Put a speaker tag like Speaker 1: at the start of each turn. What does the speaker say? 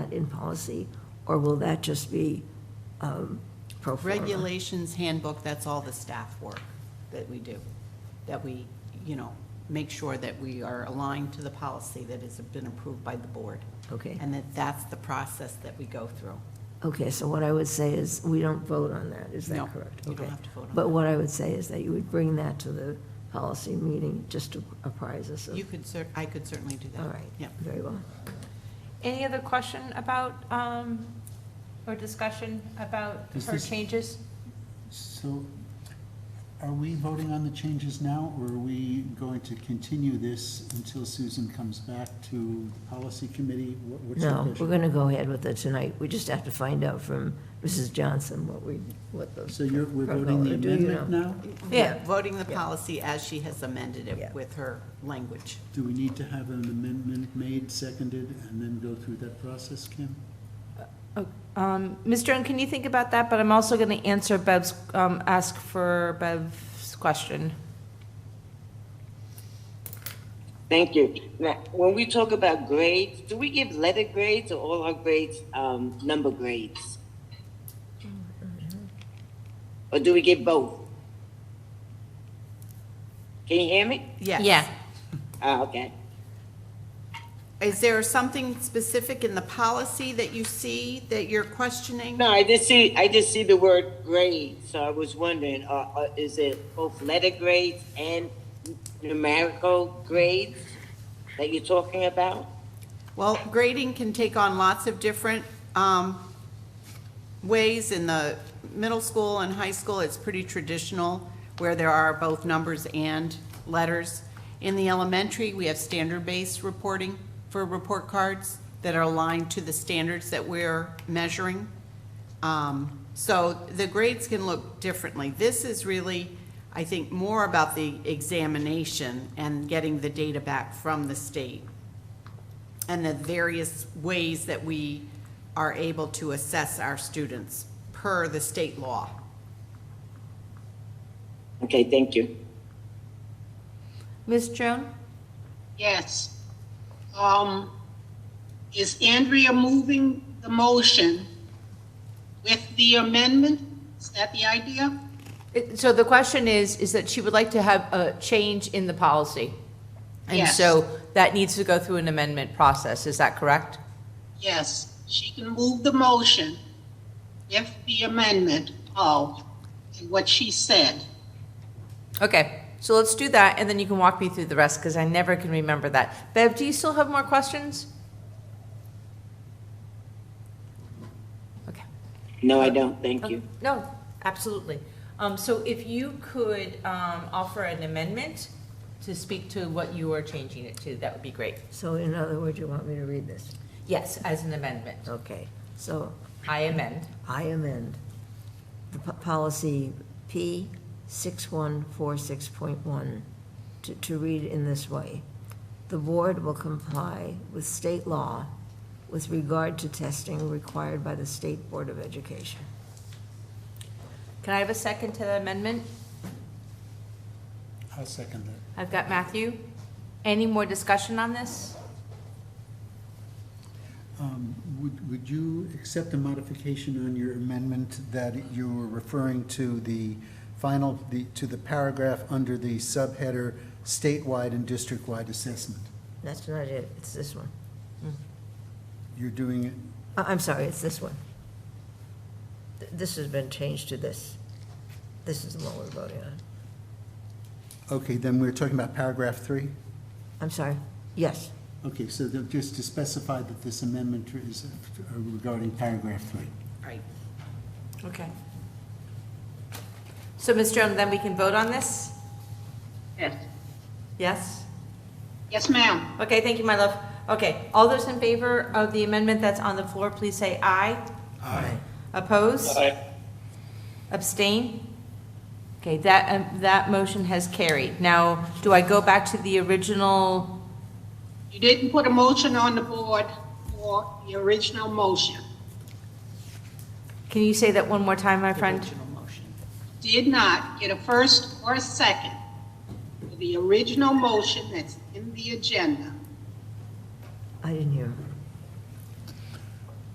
Speaker 1: in policy, or will that just be um, pro forma?
Speaker 2: Regulations handbook, that's all the staff work that we do, that we, you know, make sure that we are aligned to the policy that has been approved by the board,
Speaker 1: Okay,
Speaker 2: and that that's the process that we go through.
Speaker 1: okay, so what I would say is, we don't vote on that, is
Speaker 2: No,
Speaker 1: that correct?
Speaker 2: You don't
Speaker 1: Okay.
Speaker 2: have to vote on
Speaker 1: But what I would say is that you would bring that to the policy meeting, just to apprise us
Speaker 2: that.
Speaker 1: of,
Speaker 2: You could cer, I could certainly do that.
Speaker 1: all right,
Speaker 2: Yeah.
Speaker 1: very well.
Speaker 3: Any other question about, um, or discussion about
Speaker 4: Is
Speaker 3: her
Speaker 4: this-
Speaker 3: changes?
Speaker 4: So are we voting on the changes now, or are we going to continue this until Susan comes back to policy committee? What- What's the
Speaker 1: No, we're
Speaker 4: pleasure?
Speaker 1: going to go ahead with it tonight, we just have to find out from Mrs. Johnson what we, what those.
Speaker 4: So you're, we're voting the
Speaker 1: Do you
Speaker 4: amendment
Speaker 1: know?
Speaker 4: now?
Speaker 1: Yeah.
Speaker 2: Voting the
Speaker 1: Yeah.
Speaker 2: policy as she has amended
Speaker 1: Yeah.
Speaker 2: it with her language.
Speaker 4: Do we need to have an amendment made, seconded, and then go through that process, Kim?
Speaker 3: Um, Ms. Stern, can you think about that? But I'm also going to answer Bev's, um, ask for Bev's question.
Speaker 5: Thank you. Now, when we talk about grades, do we give letter grades or all our grades um, number grades? Or do we give both? Can you hear me?
Speaker 2: Yes.
Speaker 3: Yeah.
Speaker 5: Ah, okay.
Speaker 2: Is there something specific in the policy that you see that you're questioning?
Speaker 5: No, I just see I just see the word grade, so I was wondering, uh, uh, is it both letter grades and numerical grades that you're talking about?
Speaker 2: Well, grading can take on lots of different um, ways. In the middle school and high school, it's pretty traditional, where there are both numbers and letters. In the elementary, we have standard-based reporting for report cards that are aligned to the standards that we're measuring. Um, So the grades can look differently. This is really, I think, more about the examination and getting the data back from the state and the various ways that we are able to assess our students per the state law.
Speaker 5: Okay, thank you.
Speaker 3: Ms. Joan?
Speaker 6: Yes. Um, is Andrea moving the motion with the amendment? Is that the idea?
Speaker 3: It- So the question is, is that she would like to have a change in the policy? And
Speaker 6: Yes.
Speaker 3: so that needs to go through an amendment process, is that correct?
Speaker 6: Yes, she can move the motion if the amendment of what she said.
Speaker 3: Okay, so let's do that, and then you can walk me through the rest, because I never can remember that. Bev, do you still have more questions? Okay.
Speaker 5: No, I don't, thank you.
Speaker 3: No, absolutely. Um, So if you could um, offer an amendment to speak to what you are changing it to, that would be great.
Speaker 1: So in other words, you want me to read this?
Speaker 3: Yes, as an amendment.
Speaker 1: Okay, so
Speaker 3: I amend.
Speaker 1: I amend the po- policy P 6146.1 to, to read in this way. The board will comply with state law with regard to testing required by the State Board of Education.
Speaker 3: Can I have a second to the amendment?
Speaker 4: I'll second that.
Speaker 3: I've got Matthew. Any more discussion on this?
Speaker 4: Um, Would, would you accept a modification on your amendment that you were referring to the final, the- to the paragraph under the subheader statewide and district-wide assessment?
Speaker 1: That's not it, it's this one.
Speaker 4: You're doing it,
Speaker 1: I- Uh, I'm sorry, it's this one. Th- This has been changed to this. This is the one we're voting on.
Speaker 4: okay, then we're talking about paragraph three?
Speaker 1: I'm sorry, yes,
Speaker 4: Okay, so the- just to specify that this amendment is uh, regarding paragraph three.
Speaker 2: Right.
Speaker 3: Okay. So, Ms. Jones, then we can vote on this?
Speaker 6: Yes.
Speaker 3: Yes?
Speaker 6: Yes, ma'am.
Speaker 3: Okay, thank you, my love. Okay, all those in favor of the amendment that's on the floor, please say aye.
Speaker 4: Aye.
Speaker 3: Oppose? Abstain? Okay, that, um, that motion has carried. Now, do I go back to the original?
Speaker 6: You didn't put a motion on the board for the original motion.
Speaker 3: Can you say that one more time, my friend?
Speaker 2: Original motion.
Speaker 6: Did not get a first or a second for the original motion that's in the agenda.
Speaker 1: I didn't hear him.